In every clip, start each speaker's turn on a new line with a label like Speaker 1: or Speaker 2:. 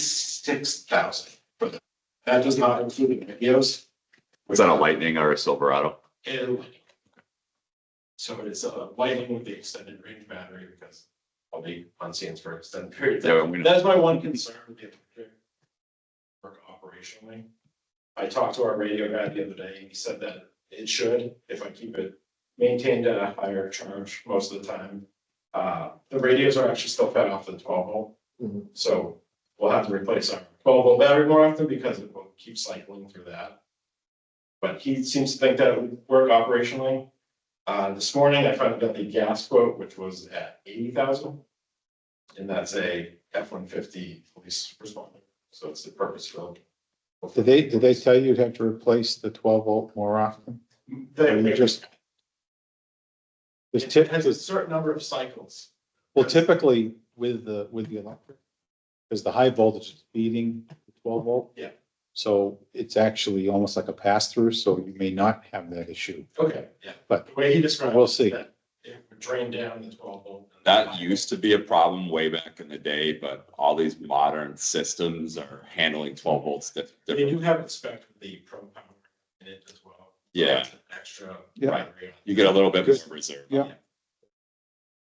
Speaker 1: eighty-six thousand. That does not include the videos.
Speaker 2: Is that a Lightning or a Silverado?
Speaker 1: And lighting. So it is a lighting with the extended range battery because I'll be on scenes for extended periods.
Speaker 2: Yeah, I'm gonna-
Speaker 1: That's my one concern with the electric Work operationally. I talked to our radio guy the other day, and he said that it should, if I keep it maintained at a higher charge most of the time. Uh, the radios are actually still fed off the twelve volt.
Speaker 3: Mhm.
Speaker 1: So we'll have to replace our twelve volt battery more often because it will keep cycling through that. But he seems to think that it would work operationally. Uh, this morning I found out the gas quote, which was at eighty thousand. And that's a F one fifty police responder, so it's the purpose filled.
Speaker 3: Did they, did they tell you you'd have to replace the twelve volt more often? Or you just? There's
Speaker 1: It
Speaker 3: tip,
Speaker 1: has a certain number of cycles.
Speaker 3: well typically with the, with the electric, because the high voltage is feeding the twelve volt.
Speaker 1: Yeah.
Speaker 3: So it's actually almost like a pass through, so you may not have that issue.
Speaker 1: Okay, yeah.
Speaker 3: But-
Speaker 1: The way he described. it,
Speaker 3: We'll see.
Speaker 1: that It would drain down the twelve volt. and
Speaker 2: That used to be a problem way back in the day, but all these modern systems are handling twelve volts dif-
Speaker 1: They
Speaker 2: different.
Speaker 1: do have it spec with the pro power in it as well.
Speaker 2: Yeah.
Speaker 1: It's an Extra.
Speaker 3: Yeah.
Speaker 1: battery on it.
Speaker 2: You get a little bit more reserve.
Speaker 3: Yeah.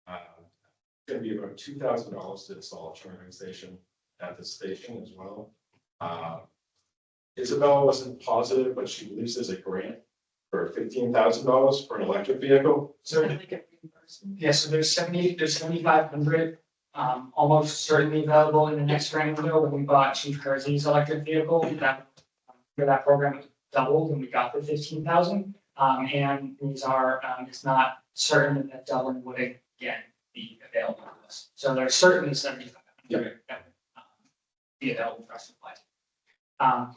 Speaker 1: Uh, It's gonna be about two thousand dollars to install a charging station at the station as well. Uh, Isabel wasn't positive, but she believes there's a grant for fifteen thousand dollars for an electric vehicle.
Speaker 4: So like a reimbursement? Yeah, so there's seventy, there's seventy-five hundred, um, almost certainly available in the next grant window when we bought Chief Kersey's electric vehicle. That, for that program doubled and we got the fifteen thousand. Um, and these are, um, it's not certain that doubling would again be available to us. So there's certainly seventy-five hundred. that um, Be available for us to apply. Um,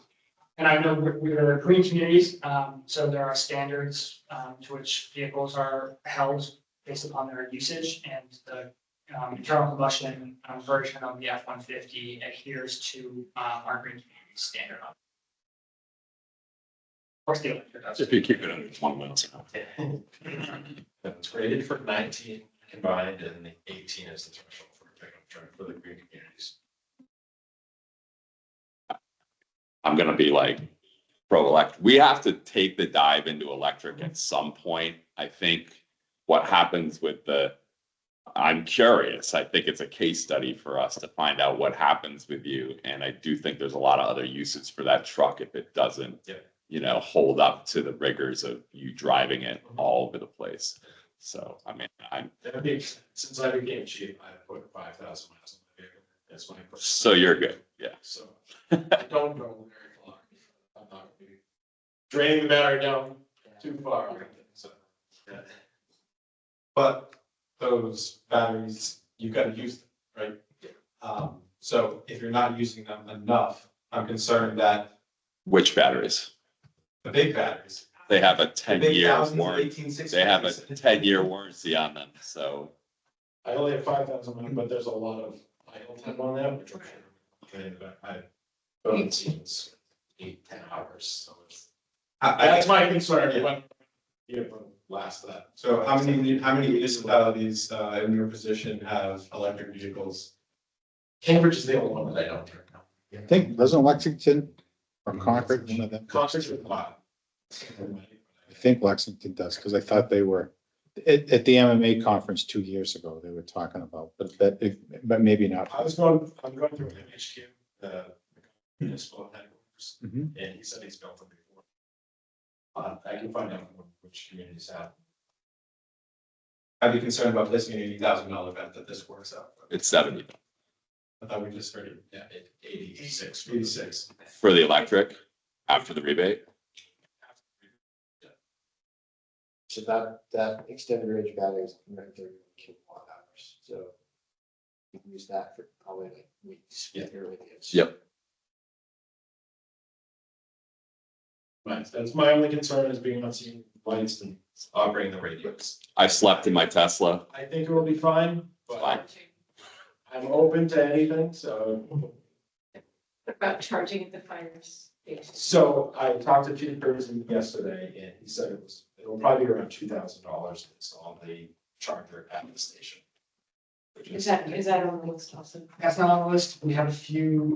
Speaker 4: and I know we're, we're the green communities, um, so there are standards, um, to which vehicles are held based upon their usage and the. Um, internal combustion um, version of the F one fifty adheres to, um, our green community standard. on- Of course, the electric does.
Speaker 2: If you keep it under twenty miles an hour.
Speaker 1: It's rated for nineteen combined and the eighteen is the threshold for a pickup truck for the green communities.
Speaker 2: I'm gonna be like pro elect. We have to take the dive into electric at some point. I think what happens with the, I'm curious. I think it's a case study for us to find out what happens with you. And I do think there's a lot of other uses for that truck if it doesn't,
Speaker 1: Yeah.
Speaker 2: you know, hold up to the rigors of you driving it
Speaker 1: Mm-hmm.
Speaker 2: all over the place. So, I mean, I'm,
Speaker 1: That'd be, since I became chief, I put five thousand miles on my vehicle. That's my.
Speaker 2: so you're good. Yeah.
Speaker 1: So I don't go very far. I'm not gonna be draining the battery down too far, so. yeah. But those batteries, you gotta use them, right? Um, so if you're not using them enough, I'm concerned that
Speaker 2: Which batteries?
Speaker 1: the big batteries.
Speaker 2: They have a
Speaker 1: the
Speaker 2: ten
Speaker 1: big
Speaker 2: year
Speaker 1: thousands,
Speaker 2: warranty.
Speaker 1: 1860s.
Speaker 2: They have a ten year warranty on them. So
Speaker 1: I only have five thousand, but there's a lot of idle time on that, which I'm sure. okay, but I don't see it's eight, ten hours, so it's.
Speaker 5: I, I,
Speaker 1: That's my concern, it won't- it won't last that.
Speaker 5: so how many, how many municipalities, uh, in your position have electric vehicles?
Speaker 1: Cambridge is the only one that I don't turn now.
Speaker 3: I think, doesn't Lexington or Concord, one of them?
Speaker 1: Concerts with a lot.
Speaker 3: I think Lexington does, because I thought they were, at, at the MMA conference two years ago, they were talking about, but that, if- but maybe not.
Speaker 1: I was going, I'm going through an HQ, uh, municipal headquarters,
Speaker 3: Mhm.
Speaker 1: and he said he's built them before. Uh, I can find out which communities have.
Speaker 5: I'd be concerned about placing an eighty thousand dollar bet that this works out.
Speaker 2: it's seventy
Speaker 5: I thought we just heard it.
Speaker 1: Yeah, it- eighty-six, eighty-six.
Speaker 5: Eighty-six.
Speaker 2: for the electric after the rebate.
Speaker 6: So that, that extended range battery is one hundred thirty kilowatt hours, so. You can use that for probably like weeks.
Speaker 1: Yeah.
Speaker 6: here with it.
Speaker 2: Yep.
Speaker 1: Right, that's my only concern is being on scene lights and operating the radios.
Speaker 2: I slept in my Tesla.
Speaker 1: I think it will be fine, but
Speaker 2: Fine.
Speaker 1: I'm open to anything, so.
Speaker 7: about charging at the fire station.
Speaker 1: So I talked to Chief Ferguson yesterday and he said it was, it'll probably be around two thousand dollars to install the charger at the station. Which
Speaker 7: Is that, is that on the list also?
Speaker 4: That's not on the list. We have a few,